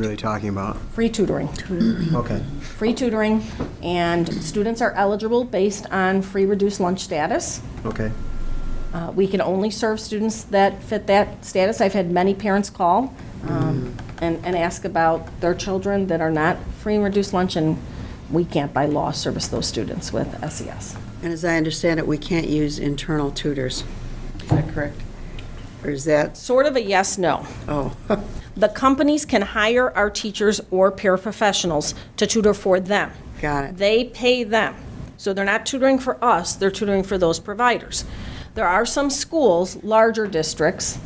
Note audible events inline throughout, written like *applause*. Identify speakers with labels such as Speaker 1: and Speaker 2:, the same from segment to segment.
Speaker 1: really talking about?
Speaker 2: Free tutoring.
Speaker 1: Okay.
Speaker 2: Free tutoring, and students are eligible based on free reduced lunch status.
Speaker 1: Okay.
Speaker 2: Uh, We can only serve students that fit that status. I've had many parents call um, and and ask about their children that are not free and reduced lunch, and we can't by law service those students with E SES.
Speaker 3: And as I understand it, we can't use internal tutors. Is that correct? Or is that,
Speaker 2: Sort of a yes, no.
Speaker 3: oh, *laughs*
Speaker 2: The companies can hire our teachers or paraprofessionals to tutor for them.
Speaker 3: Got it.
Speaker 2: They pay them. So they're not tutoring for us, they're tutoring for those providers. There are some schools, larger districts,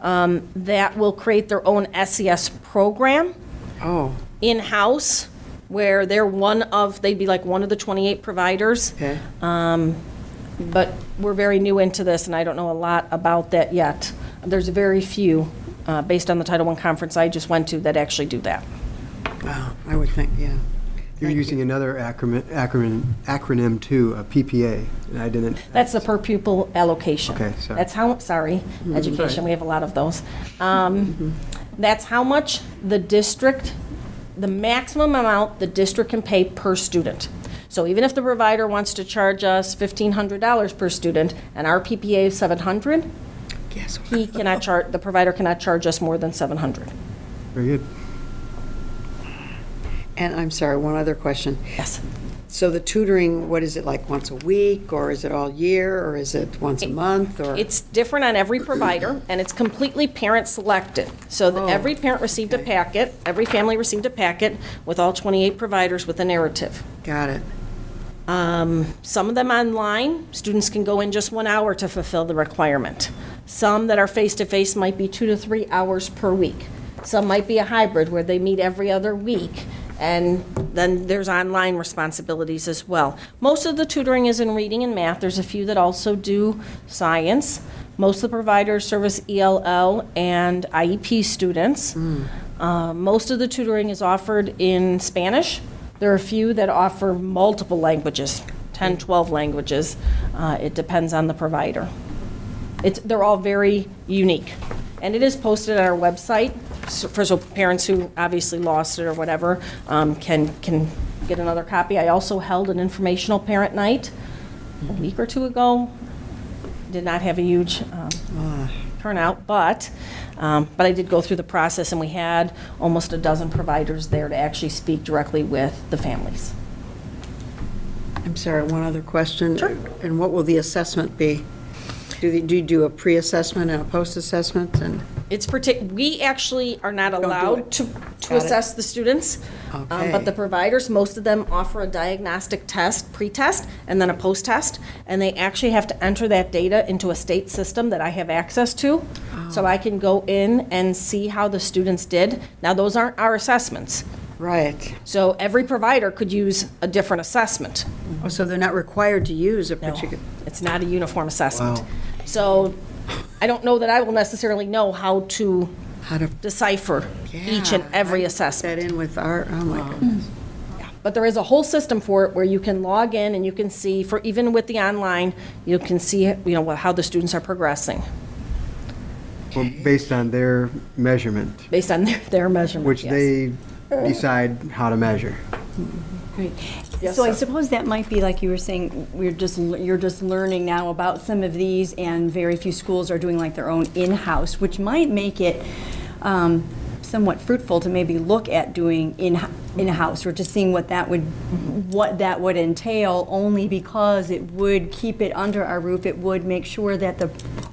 Speaker 2: um, that will create their own SES program
Speaker 3: oh,
Speaker 2: in-house where they're one of, they'd be like one of the 28 providers.
Speaker 3: okay.
Speaker 2: But we're very new into this, and I don't know a lot about that yet. There's very few, uh, based on the Title I conference I just went to, that actually do that.
Speaker 3: Wow, I would think, yeah.
Speaker 1: You're using another acronym, acronym, acronym too, a PPA, and I didn't.
Speaker 2: That's the per pupil allocation.
Speaker 1: Okay, sorry.
Speaker 2: That's how, Mm-hmm. sorry, education, we have a lot of those. Um, That's how much the district, the maximum amount the district can pay per student. So even if the provider wants to charge us $1,500 per student and our PPA is 700,
Speaker 3: Guess what?
Speaker 2: he cannot charge, the provider cannot charge us more than 700.
Speaker 1: Very good.
Speaker 3: And I'm sorry, one other question.
Speaker 2: Yes.
Speaker 3: So the tutoring, what is it, like once a week, or is it all year, or is it once a month, or?
Speaker 2: It's different on every provider, and it's completely parent-selected. So that every parent received a
Speaker 3: Oh, okay.
Speaker 2: packet, every family received a packet with all 28 providers with a narrative.
Speaker 3: Got it.
Speaker 2: Um, Some of them online, students can go in just one hour to fulfill the requirement. Some that are face-to-face might be two to three hours per week. Some might be a hybrid where they meet every other week, and then there's online responsibilities as well. Most of the tutoring is in reading and math. There's a few that also do science. Most of the providers service ELL and IEP students. Uh, Most of the tutoring is offered in Spanish. There are a few that offer multiple languages, 10, 12 languages. Uh, It depends on the provider. It's, they're all very unique. And it is posted on our website, so- for so parents who obviously lost it or whatever um, can, can get another copy. I also held an informational parent night a week or two ago. Did not have a huge um, turnout, but, um, but I did go through the process, and we had almost a dozen providers there to actually speak directly with the families.
Speaker 3: I'm sorry, one other question. And what will the assessment be? Do they, do you do a pre-assessment and a post-assessment, and?
Speaker 2: It's partic, we actually are not
Speaker 3: do
Speaker 2: allowed
Speaker 3: it.
Speaker 2: to, to
Speaker 3: Got it.
Speaker 2: assess the students. um, But
Speaker 3: Okay.
Speaker 2: the providers, most of them offer a diagnostic test, pre-test, and then a post-test. And they actually have to enter that data into a state system that I have access to.
Speaker 3: Oh.
Speaker 2: So I can go in and see how the students did. Now, those aren't our assessments.
Speaker 3: Right.
Speaker 2: So every provider could use a different assessment.
Speaker 3: Oh, so they're not required to use a
Speaker 2: No,
Speaker 3: particular?
Speaker 2: it's not a uniform assessment.
Speaker 1: Wow.
Speaker 2: So I don't know that I will necessarily know how to
Speaker 3: How to-
Speaker 2: decipher each and
Speaker 3: Yeah,
Speaker 2: every
Speaker 3: I put
Speaker 2: assessment.
Speaker 3: That in with our, oh my goodness.
Speaker 2: But there is a whole system for it where you can log in and you can see, for even with the online, you can see, you know, what- how the students are progressing
Speaker 1: Well, based on their measurement,
Speaker 2: based on *laughs* their, their measurement.
Speaker 1: which
Speaker 2: yes.
Speaker 1: they decide how to measure.
Speaker 4: Right. So I suppose that might be like you were saying, we're just, l- you're just learning now about some of these and very few schools are doing like their own in-house, which might make it um, somewhat fruitful to maybe look at doing in, in-house or just seeing what that would, what that would entail, only because it would keep it under our roof. It would make sure that the,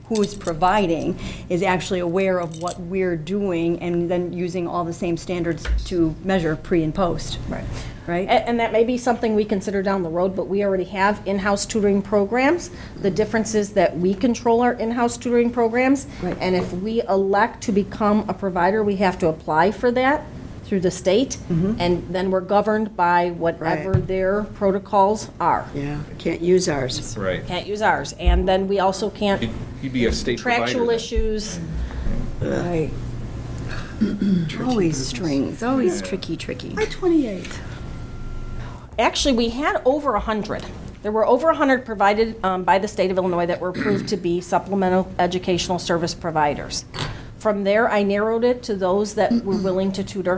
Speaker 4: who's providing is actually aware of what we're doing and then using all the same standards to measure pre and post. Right. Right?
Speaker 2: A- And, that may be something we consider down the road, but we already have in-house tutoring programs. The difference is that we control our in-house tutoring programs. And if we elect to become a provider, we have to apply for that through the state. And then we're governed by whatever
Speaker 3: Right.
Speaker 2: their protocols are.
Speaker 3: Yeah, can't use ours.
Speaker 5: Right.
Speaker 2: Can't use ours. And then we also can't,
Speaker 5: He'd be a state provider.
Speaker 2: contractual
Speaker 5: then.
Speaker 2: issues.
Speaker 4: Right. Always strings, always tricky, tricky.
Speaker 2: Actually, we had over 100. There were over 100 provided um, by the state of Illinois that were approved to be supplemental educational service providers. From there, I narrowed it to those that were willing to tutor